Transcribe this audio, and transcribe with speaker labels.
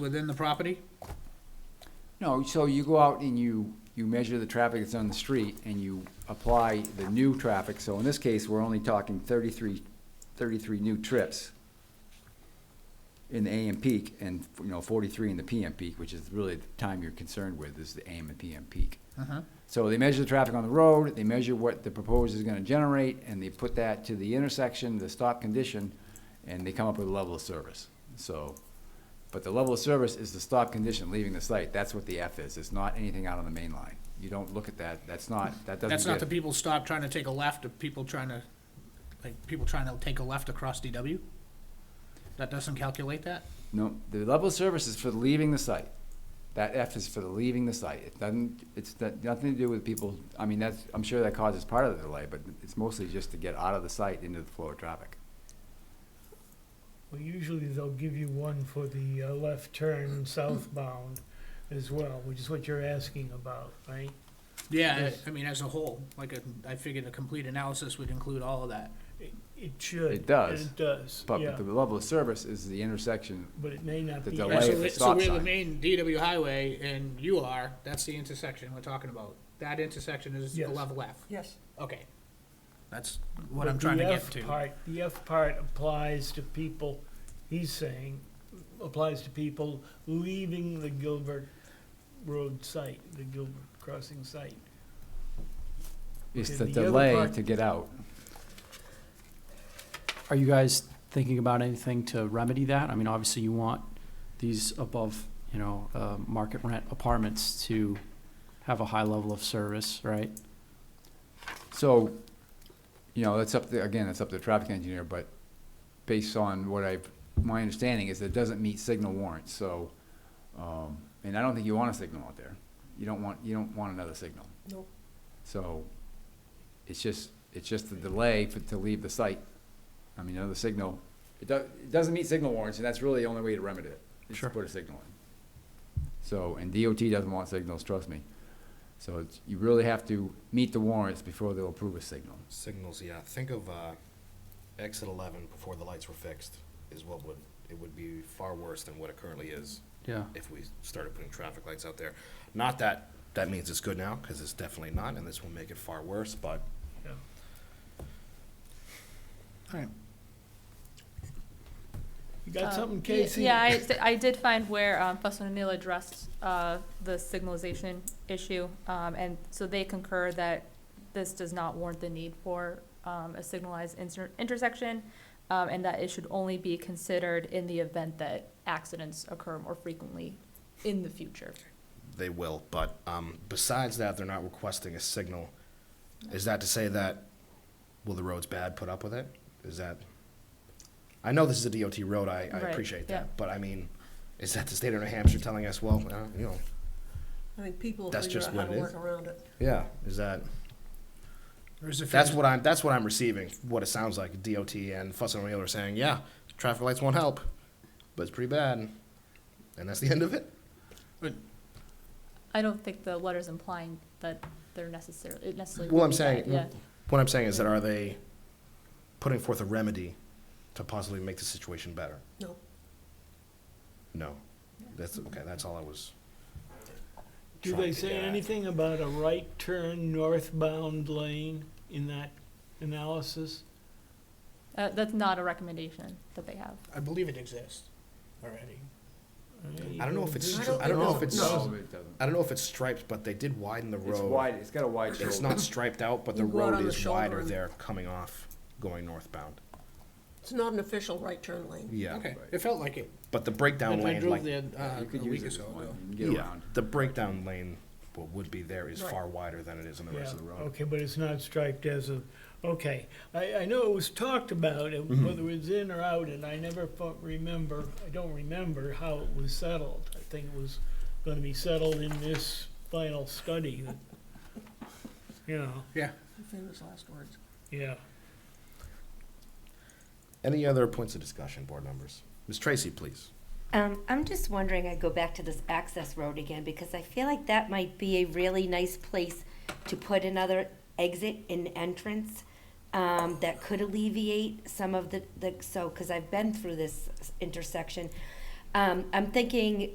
Speaker 1: within the property?
Speaker 2: No, so you go out and you, you measure the traffic that's on the street and you apply the new traffic. So in this case, we're only talking 33 33 new trips in the AM peak and, you know, forty-three in the PM peak, which is really the time you're concerned with is the AM and PM peak.
Speaker 1: Uh-huh.
Speaker 2: So they measure the traffic on the road, they measure what the proposed is gonna generate, and they put that to the intersection, the stop condition, and they come up with a level of service. So, but the level of service is the stop condition leaving the site, that's what the F is, it's not anything out on the main line. You don't look at that, that's not, that doesn't
Speaker 1: That's not the
Speaker 2: get-
Speaker 1: people stop trying to take a left, or people trying to, like, people trying to take a left across DW? That doesn't calculate that?
Speaker 2: No, the level of service is for leaving the site. That F is for the leaving the site. It doesn't, it's got nothing to do with people, I mean, that's, I'm sure that causes part of the delay, but it's mostly just to get out of the site into the flow of traffic.
Speaker 3: Well, usually they'll give you one for the uh, left turn southbound as well, which is what you're asking about, right?
Speaker 1: Yeah,
Speaker 3: Yes.
Speaker 1: I, I mean, as a whole, like, a- I figured a complete analysis would include all of that.
Speaker 3: It- It should.
Speaker 2: It does,
Speaker 3: It does,
Speaker 2: But
Speaker 3: yeah,
Speaker 2: the level of service is the intersection,
Speaker 3: but it may not
Speaker 2: the
Speaker 3: be.
Speaker 2: delay
Speaker 1: Yeah,
Speaker 2: Right,
Speaker 1: so
Speaker 2: if
Speaker 1: we-
Speaker 2: it's
Speaker 1: So
Speaker 2: stop
Speaker 1: we're the
Speaker 2: sign.
Speaker 1: main DW highway, and you are, that's the intersection we're talking about. That intersection is the
Speaker 3: Yes.
Speaker 1: level F.
Speaker 4: Yes.
Speaker 1: Okay. That's what
Speaker 3: But
Speaker 1: I'm
Speaker 3: the
Speaker 1: trying to get
Speaker 3: F
Speaker 1: to.
Speaker 3: part- The F part applies to people, he's saying, applies to people leaving the Gilbert Road site, the Gilbert Crossing site.
Speaker 2: is
Speaker 3: Okay,
Speaker 2: the
Speaker 3: the other
Speaker 2: delay
Speaker 3: part-
Speaker 2: to get out.
Speaker 5: Are you guys thinking about anything to remedy that? I mean, obviously you want these above, you know, uh, market rent apartments to have a high level of service, right?
Speaker 2: So, you know, that's up to, again, that's up to the traffic engineer, but based on what I've, my understanding is it doesn't meet signal warrants, so, um, and I don't think you want a signal out there. You don't want, you don't want another signal.
Speaker 4: Nope.
Speaker 2: So, it's just, it's just the delay for, to leave the site. I mean, another signal, it does, it doesn't meet signal warrants, and that's really the only way to remedy it, is to
Speaker 5: Sure.
Speaker 2: put a signal in. So, and DOT doesn't want signals, trust me. So it's, you really have to meet the warrants before they'll approve a signal.
Speaker 6: Signals, yeah. Think of uh, exit 11 before the lights were fixed is what would, it would be far worse than what it currently is
Speaker 5: Yeah.
Speaker 6: if we started putting traffic lights out there. Not that, that means it's good now, because it's definitely not, and this will make it far worse, but
Speaker 3: Yeah.
Speaker 1: Alright.
Speaker 3: You got
Speaker 7: Uh,
Speaker 3: something,
Speaker 7: ye-
Speaker 3: Casey?
Speaker 7: Yeah, I, d- I did find where, um, Fussin O'Neill addressed, uh, the signalization issue, um, and so they concur that this does not warrant the need for, um, a signalized inter- intersection, um, and that it should only be considered in the event that accidents occur more frequently in the future.
Speaker 6: they will. But um, besides that, they're not requesting a signal. Is that to say that, well, the road's bad, put up with it? Is that, I know this is a DOT road, I, I
Speaker 7: Right,
Speaker 6: appreciate
Speaker 7: yeah.
Speaker 6: that, but I mean, is that the state of New Hampshire telling us, well, uh, you know,
Speaker 4: I think people will
Speaker 6: That's
Speaker 4: figure
Speaker 6: just
Speaker 4: out how
Speaker 6: what
Speaker 4: to
Speaker 6: it
Speaker 4: work
Speaker 6: is.
Speaker 4: around it.
Speaker 6: yeah, is that?
Speaker 1: Or is it
Speaker 6: That's
Speaker 1: fifty-
Speaker 6: what I'm. That's what I'm receiving. What it sounds like. DOT and Fuss and O'Neill are saying, yeah, traffic lights won't help, but it's pretty bad, and that's the end of it.
Speaker 7: I don't think the letter's implying that they're necessarily, it necessarily.
Speaker 6: Well,
Speaker 7: would
Speaker 6: I'm
Speaker 7: be
Speaker 6: saying-
Speaker 7: that, Yeah.
Speaker 6: What I'm saying is that are they putting forth a remedy to possibly make the situation better?
Speaker 4: No.
Speaker 6: No. That's okay. That's all I was.
Speaker 3: Do
Speaker 6: trying
Speaker 3: they
Speaker 6: to
Speaker 3: say
Speaker 6: get at.
Speaker 3: anything about a right turn northbound lane in that analysis?
Speaker 7: Uh, that's not a recommendation that they have.
Speaker 1: I believe it exists already.
Speaker 6: I don't know if it's.
Speaker 4: I
Speaker 6: I
Speaker 4: don't
Speaker 6: don't, I don't know if
Speaker 4: think
Speaker 6: it's.
Speaker 4: so.
Speaker 2: it doesn't.
Speaker 6: I don't know if it's striped, but they did widen the road.
Speaker 2: It's wide, it's got a wide
Speaker 6: It's
Speaker 2: shoulder.
Speaker 6: not striped out, but the
Speaker 4: You go out
Speaker 6: road
Speaker 4: on the
Speaker 6: is
Speaker 4: shoulder
Speaker 6: wider
Speaker 4: and-
Speaker 6: there coming off, going northbound.
Speaker 4: It's not an official right turn lane.
Speaker 6: Yeah.
Speaker 1: Okay, it felt like it.
Speaker 6: But the breakdown
Speaker 1: If I
Speaker 6: lane,
Speaker 1: drove
Speaker 6: like
Speaker 1: there uh,
Speaker 2: You could
Speaker 1: a
Speaker 2: use
Speaker 1: week
Speaker 2: it as
Speaker 1: ago.
Speaker 2: one,
Speaker 1: though.
Speaker 2: you can get around.
Speaker 6: The breakdown lane, what would be there is
Speaker 4: Right.
Speaker 6: far wider than it is on the
Speaker 3: Yeah,
Speaker 6: rest of the road.
Speaker 3: okay, but it's not striped as a, okay. I, I know it was talked about, it-
Speaker 6: Mm-hmm.
Speaker 3: whether it's in or out, and I never fo- remember, I don't remember how it was settled. I think it was gonna be settled in this final study, that- you know,
Speaker 4: Famous last words.
Speaker 3: yeah.
Speaker 6: Any other points of discussion, board members? Ms. Tracy, please.
Speaker 8: Um, I'm just wondering, I go back to this access road again, because I feel like that might be a really nice place to put another exit and entrance, um, that could alleviate some of the, the, so, cause I've been through this intersection. Um, I'm thinking